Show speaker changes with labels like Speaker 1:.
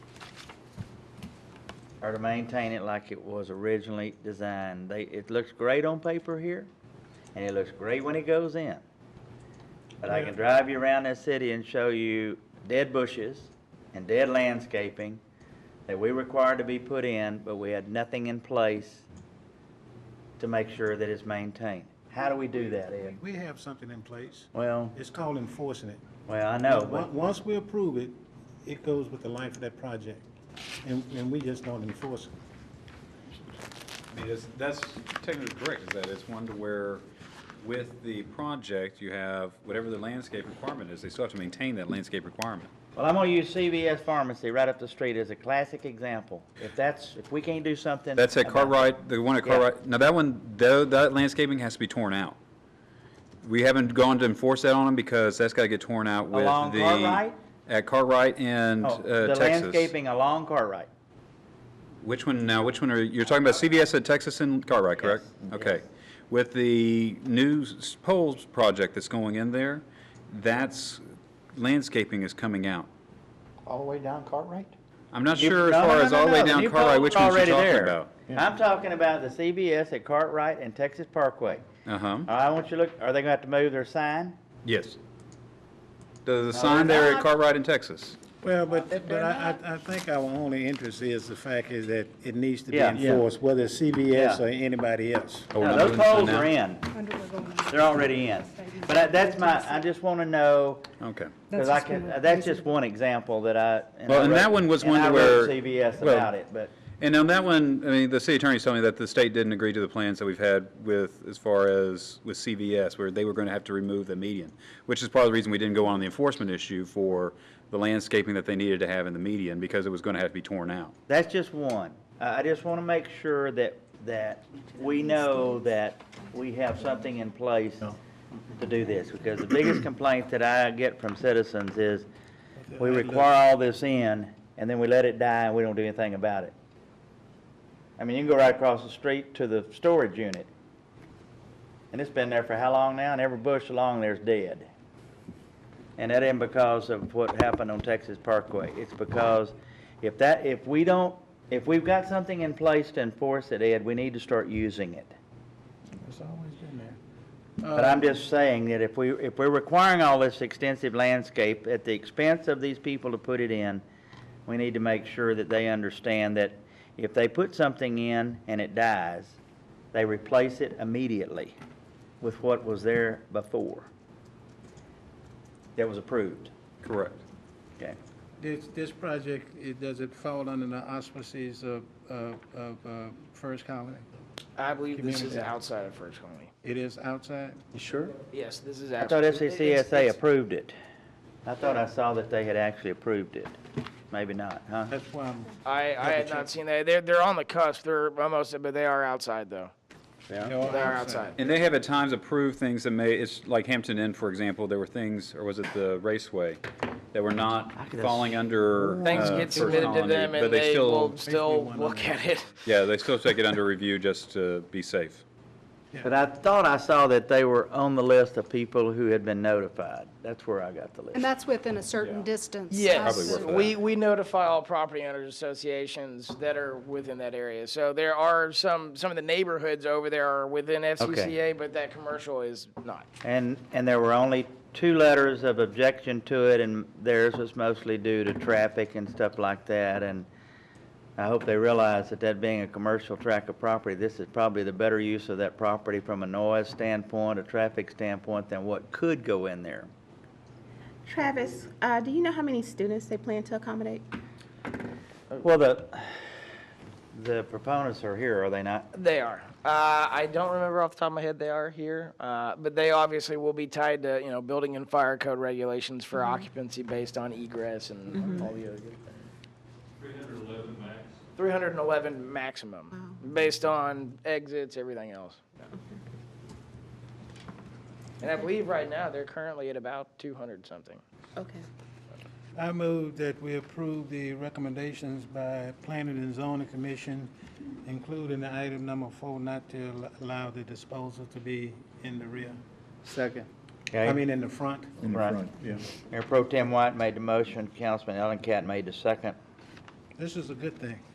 Speaker 1: or to maintain it like it was originally designed. They, it looks great on paper here, and it looks great when it goes in. But I can drive you around this city and show you dead bushes and dead landscaping that we required to be put in, but we had nothing in place to make sure that it's maintained. How do we do that, Ed?
Speaker 2: We have something in place.
Speaker 1: Well,
Speaker 2: It's called enforcing it.
Speaker 1: well, I
Speaker 3: Oh,
Speaker 1: know,
Speaker 2: Once-
Speaker 1: but,
Speaker 2: Once we approve it, it goes with the life of that project, and, and we just don't enforce it.
Speaker 4: I mean, it's- that's technically correct, is that it's one to where with the project, you have whatever the landscape requirement is, they still have to maintain that landscape requirement.
Speaker 1: well, I'm gonna use CVS Pharmacy right up the street as a classic example. If that's, if we can't do something.
Speaker 4: That's at
Speaker 1: about-
Speaker 4: Cartwright, the one at
Speaker 1: Yeah.
Speaker 4: Cartwright, now that one, though, that landscaping has to be torn out. We haven't gone to enforce that on them because that's gotta get torn out with the.
Speaker 1: Along Cartwright?
Speaker 4: At Cartwright and,
Speaker 1: Oh,
Speaker 4: uh,
Speaker 1: The
Speaker 4: Texas.
Speaker 1: landscaping along Cartwright.
Speaker 4: Which one now, which one are, you're talking about CVS at Texas and Cartwright, correct?
Speaker 1: Yes. Mm-hmm.
Speaker 4: Okay. With the new s- poles project that's going in there, that's, landscaping is coming out.
Speaker 5: All the way down Cartwright?
Speaker 4: I'm not
Speaker 1: You-
Speaker 4: sure as
Speaker 1: no, no,
Speaker 4: far
Speaker 1: no,
Speaker 4: as
Speaker 1: no,
Speaker 4: all the way
Speaker 1: no.
Speaker 4: down
Speaker 1: New
Speaker 4: Cartwright,
Speaker 1: poles
Speaker 4: which
Speaker 1: are
Speaker 4: ones you're
Speaker 1: already
Speaker 4: talking
Speaker 1: there.
Speaker 4: about.
Speaker 1: I'm talking about the CVS at Cartwright and Texas Parkway.
Speaker 4: Uh-huh,
Speaker 1: I want you to look, are they gonna have to move their sign?
Speaker 4: yes. The, the sign there
Speaker 1: not.
Speaker 4: at Cartwright in Texas.
Speaker 2: Well, but, but I, I, I think our only interest is the fact is that it needs to be
Speaker 1: Yeah. Yeah.
Speaker 2: enforced, whether it's CBS
Speaker 1: Yeah.
Speaker 2: or anybody else.
Speaker 4: Oh, we're
Speaker 1: No,
Speaker 4: not
Speaker 1: those
Speaker 4: doing this
Speaker 1: poles
Speaker 4: now?
Speaker 1: are in.
Speaker 6: Underwood going on.
Speaker 1: They're already in. But I- that's my, I just wanna know,
Speaker 4: Okay.
Speaker 1: cause I can, that's just one example that I.
Speaker 4: Well,
Speaker 1: I
Speaker 4: and
Speaker 1: wrote-
Speaker 4: that one was
Speaker 1: and
Speaker 4: one
Speaker 1: I
Speaker 4: where-
Speaker 1: wrote CVS
Speaker 4: well-
Speaker 1: about it, but.
Speaker 4: And on that one, I mean, the city attorney's telling me that the state didn't agree to the plans that we've had with, as far as with CVS, where they were going to have to remove the median, which is part of the reason we didn't go on the enforcement issue for the landscaping that they needed to have in the median, because it was going to have to be torn out.
Speaker 1: That's just one. I, I just want to make sure that, that we know that we have something in place to do this, because the biggest complaint that I get from citizens is, we require all this in, and then we let it die, and we don't do anything about it. I mean, you can go right across the street to the storage unit, and it's been there for how long now, and every bush along there's dead. And that ain't because of what happened on Texas Parkway. It's because if that, if we don't, if we've got something in place to enforce it, Ed, we need to start using it.
Speaker 5: It's always been there.
Speaker 1: But I'm just saying that if we, if we're requiring all this extensive landscape at the expense of these people to put it in, we need to make sure that they understand that if they put something in and it dies, they replace it immediately with what was there before that was approved.
Speaker 4: Correct.
Speaker 1: Okay.
Speaker 3: This, this project, it, does it fall under the auspices of, of, of uh, First Colony?
Speaker 7: I believe this is
Speaker 3: Community.
Speaker 7: outside of First Colony.
Speaker 3: It is outside?
Speaker 5: You sure?
Speaker 7: Yes, this is
Speaker 1: I
Speaker 7: outside.
Speaker 1: thought E FCCSA
Speaker 7: It's-
Speaker 1: approved it. I thought I saw that they had actually approved it. Maybe not, huh?
Speaker 3: That's why I'm,
Speaker 7: I, I had not seen that. They're, they're on the cusp. They're almost, but they are outside though.
Speaker 3: they are
Speaker 7: They are outside.
Speaker 4: And they have at times approved things that may, it's like Hampton Inn, for example, there were things, or was it the raceway, that were not
Speaker 1: I could have-
Speaker 4: falling under.
Speaker 7: Things
Speaker 4: uh,
Speaker 7: get
Speaker 4: First
Speaker 7: submitted to
Speaker 4: Colony,
Speaker 7: them
Speaker 4: but
Speaker 7: and they
Speaker 4: still-
Speaker 7: will still
Speaker 3: one
Speaker 7: look at it.
Speaker 4: Yeah, they still take it under review just to be safe.
Speaker 1: But I thought I saw that they were on the list of people who had been notified. That's where I got the
Speaker 6: And
Speaker 1: list.
Speaker 6: that's within a certain distance.
Speaker 4: Probably
Speaker 7: Yes,
Speaker 4: worth it.
Speaker 7: we, we notify all property owners associations that are within that area. So there are some, some of the neighborhoods over there are within FCCA, but that commercial is not.
Speaker 1: And, and there were only two letters of objection to it, and theirs was mostly due to traffic and stuff like that. And I hope they realize that that being a commercial tract of property, this is probably the better use of that property from a noise standpoint, a traffic standpoint, than what could go in there.
Speaker 8: Travis, uh, do you know how many students they plan to accommodate?
Speaker 1: Well, the, the proponents are here, are they not?
Speaker 7: They are. Uh, I don't remember off the top of my head they are here, uh, but they obviously will be tied to you know building and fire code regulations for occupancy based on egress and all the other good things. Three hundred eleven max. Three hundred and eleven maximum, based on exits, everything else. And I believe right now they're currently at about two hundred something.
Speaker 8: Okay.
Speaker 3: I move that we approve the recommendations by Planning and Zoning Commission, including the item number four, not to allow the disposal to be in the rear. Second. I mean, in the front.
Speaker 1: Right.
Speaker 2: yeah.
Speaker 1: Mayor Pro Tem White made the motion, Councilman Ellen Cat made the second.
Speaker 3: This is a good thing.